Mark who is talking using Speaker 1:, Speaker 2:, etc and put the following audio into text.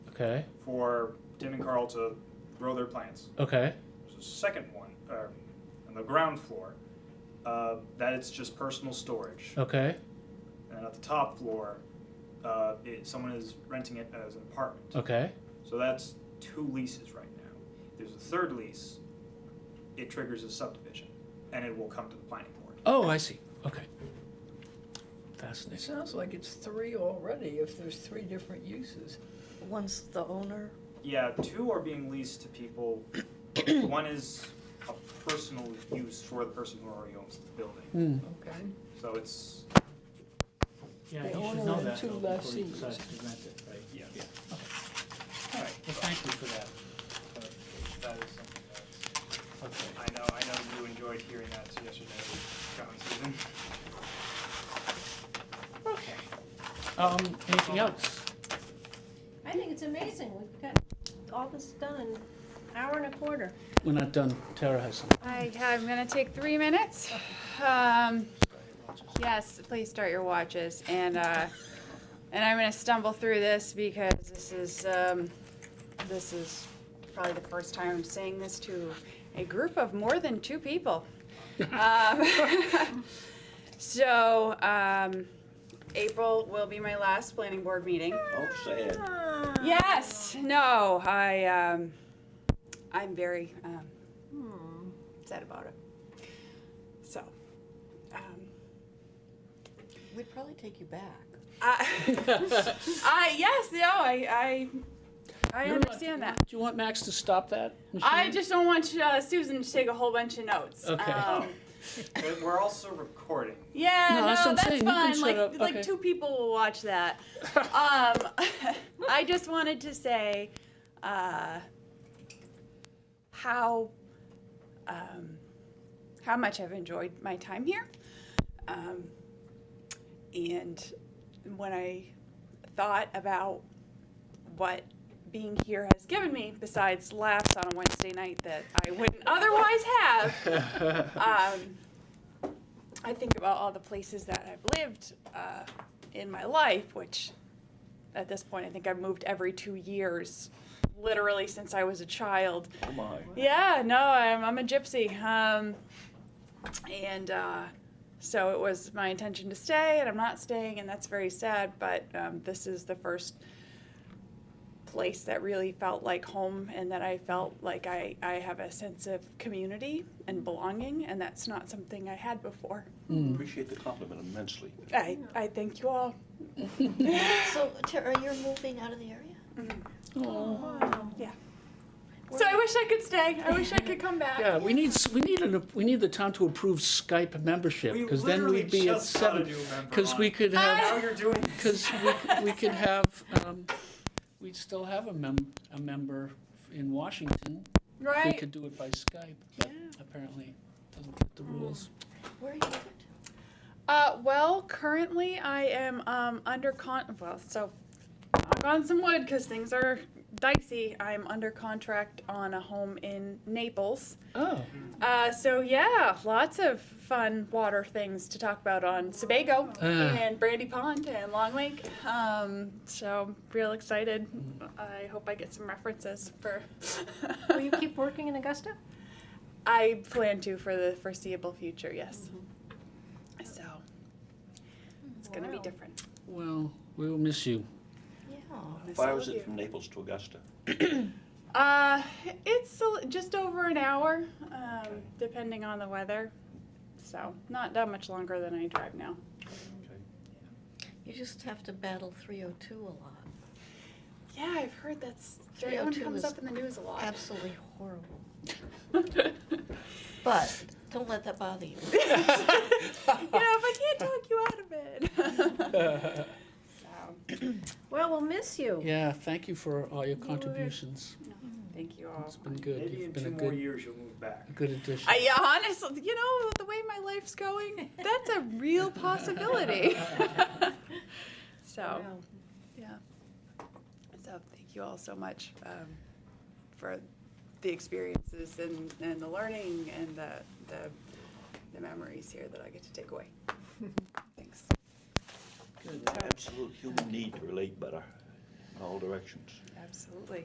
Speaker 1: Okay.
Speaker 2: for Tim and Carl to grow their plants.
Speaker 1: Okay.
Speaker 2: There's a second one uh, on the ground floor uh, that it's just personal storage.
Speaker 1: Okay.
Speaker 2: And at the top floor, uh, it, someone is renting it as an apartment.
Speaker 1: Okay.
Speaker 2: So that's two leases right now. If There's a third lease, it triggers a subdivision, and it will come to the planning board.
Speaker 1: Oh, I see. Okay.
Speaker 3: It
Speaker 1: Fascinating.
Speaker 3: sounds like it's three already, if there's three different uses.
Speaker 4: One's the owner,
Speaker 2: Yeah, two are being leased to people. but One is a personal use for the person who already owns the building.
Speaker 3: Okay.
Speaker 2: So it's,
Speaker 5: Yeah,
Speaker 3: They
Speaker 5: he should
Speaker 3: only
Speaker 5: know
Speaker 3: have
Speaker 5: that
Speaker 3: two
Speaker 5: though before he
Speaker 3: lessees.
Speaker 5: decides to rent it, right?
Speaker 2: yeah.
Speaker 1: Yeah.
Speaker 2: All right.
Speaker 5: Well, thank you for that.
Speaker 2: But That is something that's,
Speaker 5: Okay.
Speaker 2: I know, I know you enjoyed hearing that yesterday, John Susan.
Speaker 5: Okay. Um, anything else?
Speaker 6: I think it's amazing, we've got all this done in an hour and a quarter.
Speaker 1: We're not done. Tara has something.
Speaker 7: I, I'm gonna take three minutes. Um, yes, please start your watches, and, uh, and I'm gonna stumble through this because this is, um, this is probably the first time I'm saying this to a group of more than two people. Um, So, um, April will be my last planning board meeting.
Speaker 8: Oh, sad.
Speaker 7: Ah. Yes, no, I, um, I'm very, um,
Speaker 4: Hmm.
Speaker 7: sad about it. So, um,
Speaker 4: we'd probably take you back.
Speaker 7: I, I, yes, no, I, I, I
Speaker 1: You're not-
Speaker 7: understand that.
Speaker 1: Do you want Max to stop that?
Speaker 7: I
Speaker 1: machine?
Speaker 7: just don't want uh, Susan to take a whole bunch of notes.
Speaker 1: Okay.
Speaker 7: Um,
Speaker 2: But We're also recording.
Speaker 7: Yeah,
Speaker 1: No,
Speaker 7: no,
Speaker 1: that's
Speaker 7: that's,
Speaker 1: what I'm saying. You can
Speaker 7: fun.
Speaker 1: shut
Speaker 7: Like,
Speaker 1: up.
Speaker 7: like
Speaker 1: Okay.
Speaker 7: two people will watch that. um, I just wanted to say uh, how um, how much I've enjoyed my time here, um, and when I thought about what being here has given me, besides laughs on a Wednesday night that I wouldn't otherwise have um, I think about all the places that I've lived uh, in my life, which at this point I think I've moved every two years, literally since I was a child.
Speaker 8: Oh, my.
Speaker 7: Yeah, no, I'm, I'm a gypsy. Um, and uh, so it was my intention to stay, and I'm not staying, and that's very sad. But um, this is the first place that really felt like home, and that I felt like I, I have a sense of community and belonging, and that's not something I had before.
Speaker 8: Appreciate the compliment immensely.
Speaker 7: I, I thank you all.
Speaker 4: So Tara, you're moving out of the area?
Speaker 7: Mm-hmm.
Speaker 4: Oh,
Speaker 7: Oh, So I wish I could stay. I wish I could come back.
Speaker 1: Yeah, we need, s- we need, an we need the town to approve Skype membership,
Speaker 2: We
Speaker 1: because then we'd
Speaker 2: literally
Speaker 1: be at
Speaker 2: just gotta
Speaker 1: seven.
Speaker 2: do a member
Speaker 1: Because we
Speaker 2: line.
Speaker 1: could have,
Speaker 2: Now you're doing
Speaker 1: because we could have, um, we'd still have a mem, a member in Washington. If we
Speaker 7: Right?
Speaker 1: could do it by Skype, but apparently doesn't fit the rules.
Speaker 4: Where are you moving to?
Speaker 7: Uh, well, currently I am um, under con. Well, so knock on some wood because things are dicey. I'm under contract on a home in Naples.
Speaker 1: Oh,
Speaker 7: Uh, so yeah, lots of fun water things to talk about on Sebago
Speaker 1: Ah.
Speaker 7: and Brandy Pond and Long Lake. Um, so real excited. I hope I get some references for.
Speaker 6: Will you keep working in Augusta?
Speaker 7: I plan to for the foreseeable future, yes. So it's going to be
Speaker 6: Wow.
Speaker 7: different.
Speaker 1: well, we will miss you.
Speaker 4: Yeah.
Speaker 7: Miss
Speaker 8: Why
Speaker 7: all
Speaker 8: was
Speaker 7: of
Speaker 8: it
Speaker 7: you.
Speaker 8: from Naples to Augusta?
Speaker 7: Uh, it's a l- just over an hour, um, depending on the weather. So not that much longer than I drive now.
Speaker 4: You just have to battle three oh two a lot.
Speaker 7: Yeah, I've heard that's
Speaker 4: that one 302 comes is- up
Speaker 7: in the news a lot.
Speaker 4: Absolutely horrible. But don't let that bother you.
Speaker 7: you know, if I can't talk you out of it. so,
Speaker 6: Well, we'll miss you.
Speaker 1: Yeah, thank you for all your contributions.
Speaker 7: thank you all.
Speaker 1: It's been good.
Speaker 2: Maybe in
Speaker 1: You've been
Speaker 2: two
Speaker 1: a
Speaker 2: more
Speaker 1: good,
Speaker 2: years you'll move back.
Speaker 1: a good addition.
Speaker 7: I yeah, honestly, you know, the way my life's going, that's a real possibility. so,
Speaker 6: Wow.
Speaker 7: yeah. So, thank you all so much um, for the experiences and, and the learning and the, the, the memories here that I get to take away. Thanks.
Speaker 8: Absolute human need to relate better.
Speaker 9: in all directions.
Speaker 8: Absolutely.